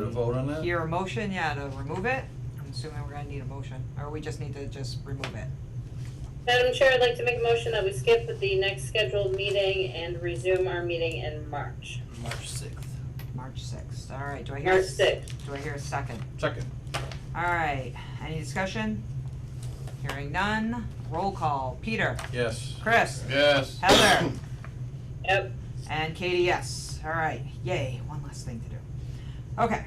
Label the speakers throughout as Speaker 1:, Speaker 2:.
Speaker 1: to vote on that?
Speaker 2: Hear a motion, yeah, to remove it? I'm assuming we're gonna need a motion, or we just need to just remove it.
Speaker 3: Madam Chair, I'd like to make a motion that we skip the next scheduled meeting and resume our meeting in March,
Speaker 4: March sixth.
Speaker 2: March sixth, alright, do I hear? a
Speaker 3: March
Speaker 2: s-
Speaker 3: sixth.
Speaker 2: Do I hear a second?
Speaker 1: Second.
Speaker 2: Alright, any discussion? Hearing none, roll call, Peter,
Speaker 1: Yes.
Speaker 2: Chris,
Speaker 1: Yes.
Speaker 2: Heather,
Speaker 3: Yep,
Speaker 2: and Katie, yes, alright, yay, one last thing to do. Okay,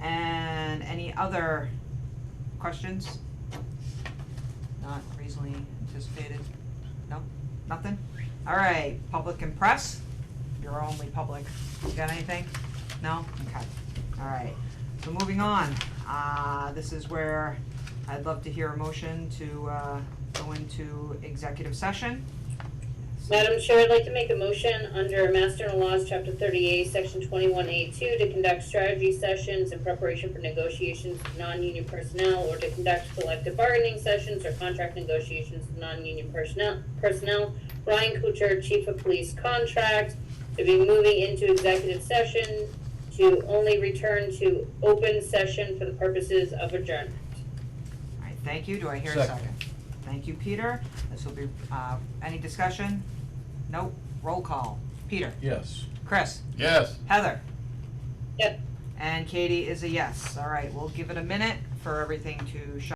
Speaker 2: and any other questions? Not reasonably anticipated, no, nothing? Alright, public and press, you're only public, you got anything? No? Okay, alright, so moving on, uh, this is where I'd love to hear a motion to, uh, go into executive session.
Speaker 3: Madam Chair, I'd like to make a motion under Master and Laws, Chapter thirty-eight, Section twenty-one A two, to conduct strategy sessions in preparation for negotiations with non-union personnel, or to conduct collective bargaining sessions or contract negotiations with non-union personnel, personnel. Ryan Kuchar, Chief of Police Contract, to be moving into executive session, to only return to open session for the purposes of adjournment.
Speaker 2: Alright, thank you, do I hear a
Speaker 1: Second.
Speaker 2: second? Thank you, Peter, this will be, uh, any discussion? Nope, roll call, Peter,
Speaker 1: Yes.
Speaker 2: Chris,
Speaker 1: Yes.
Speaker 2: Heather?
Speaker 3: Yep.
Speaker 2: And Katie is a yes, alright, we'll give it a minute for everything to shut